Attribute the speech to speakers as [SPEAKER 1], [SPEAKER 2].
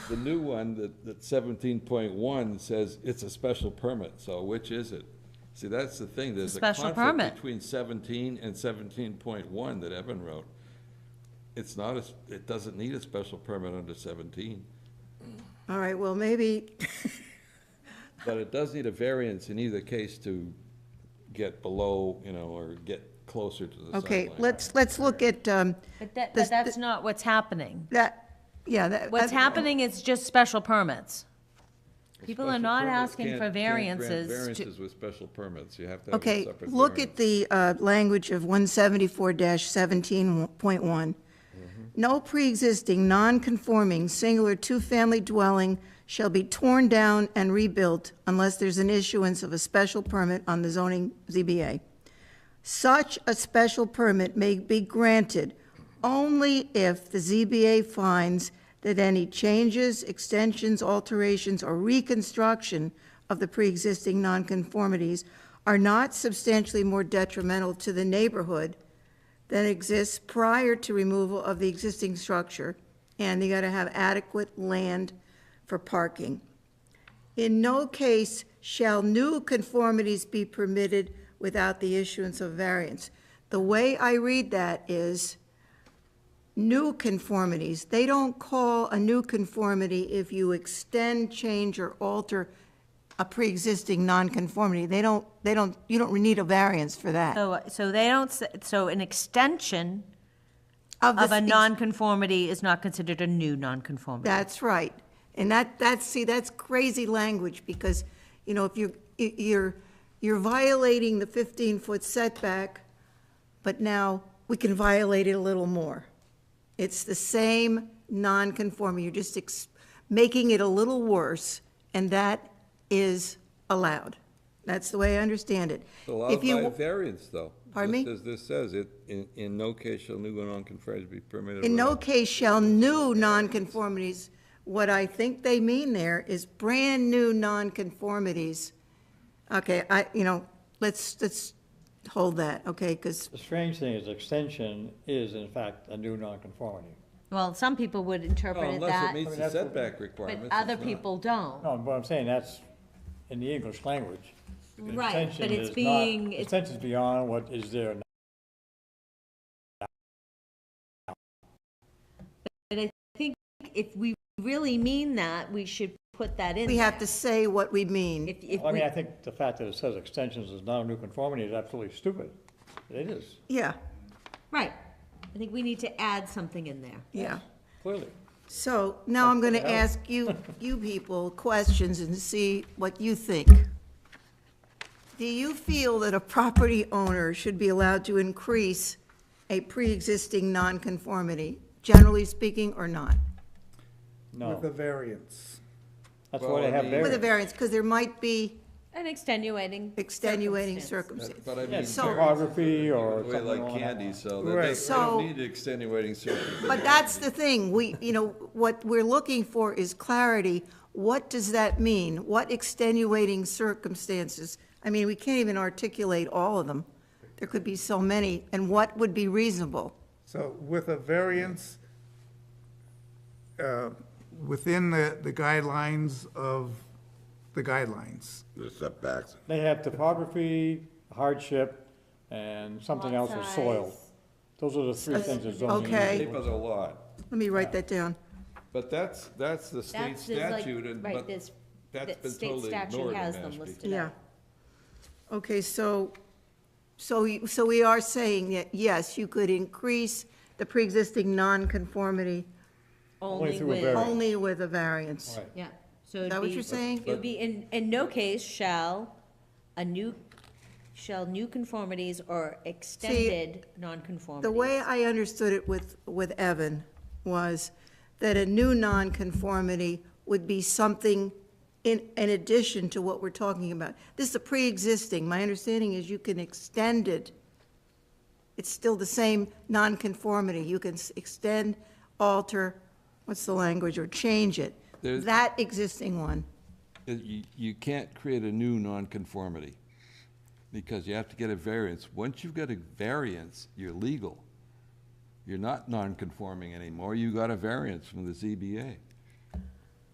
[SPEAKER 1] the new one, that, that seventeen point one says it's a special permit, so which is it? See, that's the thing, there's a
[SPEAKER 2] special
[SPEAKER 1] conflict
[SPEAKER 2] permit.
[SPEAKER 1] between seventeen and seventeen point one that Evan wrote. It's not, a s- it doesn't need a special permit under seventeen,
[SPEAKER 3] All right, well, maybe,
[SPEAKER 1] but it does need a variance in either case to get below, you know, or get closer to the
[SPEAKER 3] okay,
[SPEAKER 1] sideline.
[SPEAKER 3] let's, let's look at, um,
[SPEAKER 2] But that,
[SPEAKER 3] This-
[SPEAKER 2] but that's not what's happening.
[SPEAKER 3] that, yeah, that.
[SPEAKER 2] What's
[SPEAKER 3] that-
[SPEAKER 2] happening is just special permits. People are
[SPEAKER 1] Special
[SPEAKER 2] not
[SPEAKER 1] permits
[SPEAKER 2] asking
[SPEAKER 1] can't-
[SPEAKER 2] for
[SPEAKER 1] can't grant
[SPEAKER 2] variances to,
[SPEAKER 1] Variances with special permits, you have to have a
[SPEAKER 3] Okay,
[SPEAKER 1] separate
[SPEAKER 3] look
[SPEAKER 1] variance.
[SPEAKER 3] at the uh, language of 174-17.1. No pre-existing, non-conforming, singular two-family dwelling shall be torn down and rebuilt unless there's an issuance of a special permit on the zoning ZBA. Such a special permit may be granted only if the ZBA finds that any changes, extensions, alterations, or reconstruction of the pre-existing nonconformities are not substantially more detrimental to the neighborhood than exists prior to removal of the existing structure, and you gotta have adequate land for parking. In no case shall new conformities be permitted without the issuance of variance. The way I read that is new conformities. They don't call a new conformity if you extend, change, or alter a pre-existing nonconformity. They don't, they don't, you don't need a variance for that.
[SPEAKER 2] so, so they don't, s- so an extension of
[SPEAKER 3] the-
[SPEAKER 2] a nonconformity is not considered a new nonconformity.
[SPEAKER 3] That's right. And that, that's, see, that's crazy language, because, you know, if you're, i- you're, you're violating the 15-foot setback, but now we can violate it a little more. It's the same non-conforming, you're just ex- making it a little worse, and that is allowed. That's the way I understand it.
[SPEAKER 1] It's Allowed
[SPEAKER 3] If you-
[SPEAKER 1] by a variance, though.
[SPEAKER 3] Pardon
[SPEAKER 1] Just
[SPEAKER 3] me?
[SPEAKER 1] As this says, it, in, in no case shall new and non-conformities be permitted.
[SPEAKER 3] In no
[SPEAKER 1] without-
[SPEAKER 3] case shall new nonconformities, what I think they mean there is brand-new nonconformities. Okay, I, you know, let's, let's hold that, okay, because,
[SPEAKER 4] The strange thing is extension is in fact a new nonconformity.
[SPEAKER 2] Well, some people would interpret
[SPEAKER 1] Well,
[SPEAKER 2] it
[SPEAKER 1] Oh, Unless it
[SPEAKER 2] that,
[SPEAKER 1] meets
[SPEAKER 4] But
[SPEAKER 1] the
[SPEAKER 4] that's what-
[SPEAKER 1] setback requirements.
[SPEAKER 2] but
[SPEAKER 1] it's
[SPEAKER 2] other
[SPEAKER 1] not.
[SPEAKER 2] people don't.
[SPEAKER 4] No, but I'm saying that's in the English language.
[SPEAKER 2] Right, but
[SPEAKER 4] Extension
[SPEAKER 2] it's
[SPEAKER 4] is not-
[SPEAKER 2] being- it's-
[SPEAKER 4] Extension's beyond what is there now.
[SPEAKER 2] But I think if we really mean that, we should put that in.
[SPEAKER 3] we have to
[SPEAKER 2] there.
[SPEAKER 3] say what we mean.
[SPEAKER 2] If, if
[SPEAKER 4] I mean,
[SPEAKER 2] we,
[SPEAKER 4] I think the fact that it says extensions is not a new conformity is absolutely stupid. It is,
[SPEAKER 3] Yeah,
[SPEAKER 2] right. I think we need to add something in there.
[SPEAKER 3] yeah.
[SPEAKER 4] clearly.
[SPEAKER 3] So now I'm going to
[SPEAKER 4] Okay.
[SPEAKER 3] ask you, you people questions and see what you think. Do you feel that a property owner should be allowed to increase a pre-existing nonconformity, generally speaking, or not?
[SPEAKER 5] With a
[SPEAKER 4] No,
[SPEAKER 5] variance.
[SPEAKER 4] that's
[SPEAKER 1] Well,
[SPEAKER 4] why
[SPEAKER 1] I
[SPEAKER 4] they have
[SPEAKER 1] mean-
[SPEAKER 3] With a
[SPEAKER 4] variance.
[SPEAKER 3] variance, because there might be
[SPEAKER 2] An extenuating.
[SPEAKER 3] extenuating
[SPEAKER 2] circumstance.
[SPEAKER 3] circumstances.
[SPEAKER 1] But I mean.
[SPEAKER 4] Yes,
[SPEAKER 3] So-
[SPEAKER 4] topography or
[SPEAKER 1] We
[SPEAKER 4] something
[SPEAKER 1] like
[SPEAKER 4] along that
[SPEAKER 1] candy,
[SPEAKER 4] line.
[SPEAKER 1] so that
[SPEAKER 5] Right.
[SPEAKER 1] doesn't- we don't
[SPEAKER 3] So-
[SPEAKER 1] need extenuating circumstances.
[SPEAKER 3] But that's the thing, we, you know, what we're looking for is clarity. What does that mean? What extenuating circumstances? I mean, we can't even articulate all of them. There could be so many, and what would be reasonable?
[SPEAKER 5] So with a variance, uh, within the, the guidelines of the guidelines.
[SPEAKER 6] the setbacks.
[SPEAKER 4] They have topography, hardship, and something else
[SPEAKER 2] Lot
[SPEAKER 4] with soil.
[SPEAKER 2] size.
[SPEAKER 4] Those are the three things that zoning.
[SPEAKER 3] Okay.
[SPEAKER 1] Shape of the lot,
[SPEAKER 3] Let me write that down.
[SPEAKER 1] but that's, that's the state
[SPEAKER 2] That's, there's like,
[SPEAKER 1] statute and,
[SPEAKER 2] right,
[SPEAKER 1] but
[SPEAKER 2] there's,
[SPEAKER 1] that's
[SPEAKER 2] that
[SPEAKER 1] been
[SPEAKER 2] state
[SPEAKER 1] totally
[SPEAKER 2] statute
[SPEAKER 1] ignored in
[SPEAKER 2] has them
[SPEAKER 1] Mashpee.
[SPEAKER 2] listed out.
[SPEAKER 3] Okay, so, so, you- so we are saying that, yes, you could increase the pre-existing nonconformity
[SPEAKER 2] Only
[SPEAKER 4] through a
[SPEAKER 2] with,
[SPEAKER 4] variance.
[SPEAKER 3] only with a variance.
[SPEAKER 4] Right.
[SPEAKER 2] yeah. So
[SPEAKER 3] Is
[SPEAKER 2] it'd
[SPEAKER 3] that what
[SPEAKER 2] be-
[SPEAKER 3] you're saying?
[SPEAKER 2] It would be, in, in no case shall a new, shall new conformities or extended nonconformities.
[SPEAKER 3] The way I understood it with, with Evan was that a new nonconformity would be something in, in addition to what we're talking about. This is a pre-existing. My understanding is you can extend it. It's still the same nonconformity. You can s- extend, alter, what's the language, or change it.
[SPEAKER 1] There's-
[SPEAKER 3] That existing one.
[SPEAKER 1] Uh, You, you can't create a new nonconformity, because you have to get a variance. Once you've got a variance, you're legal. You're not nonconforming anymore, you got a variance from the ZBA.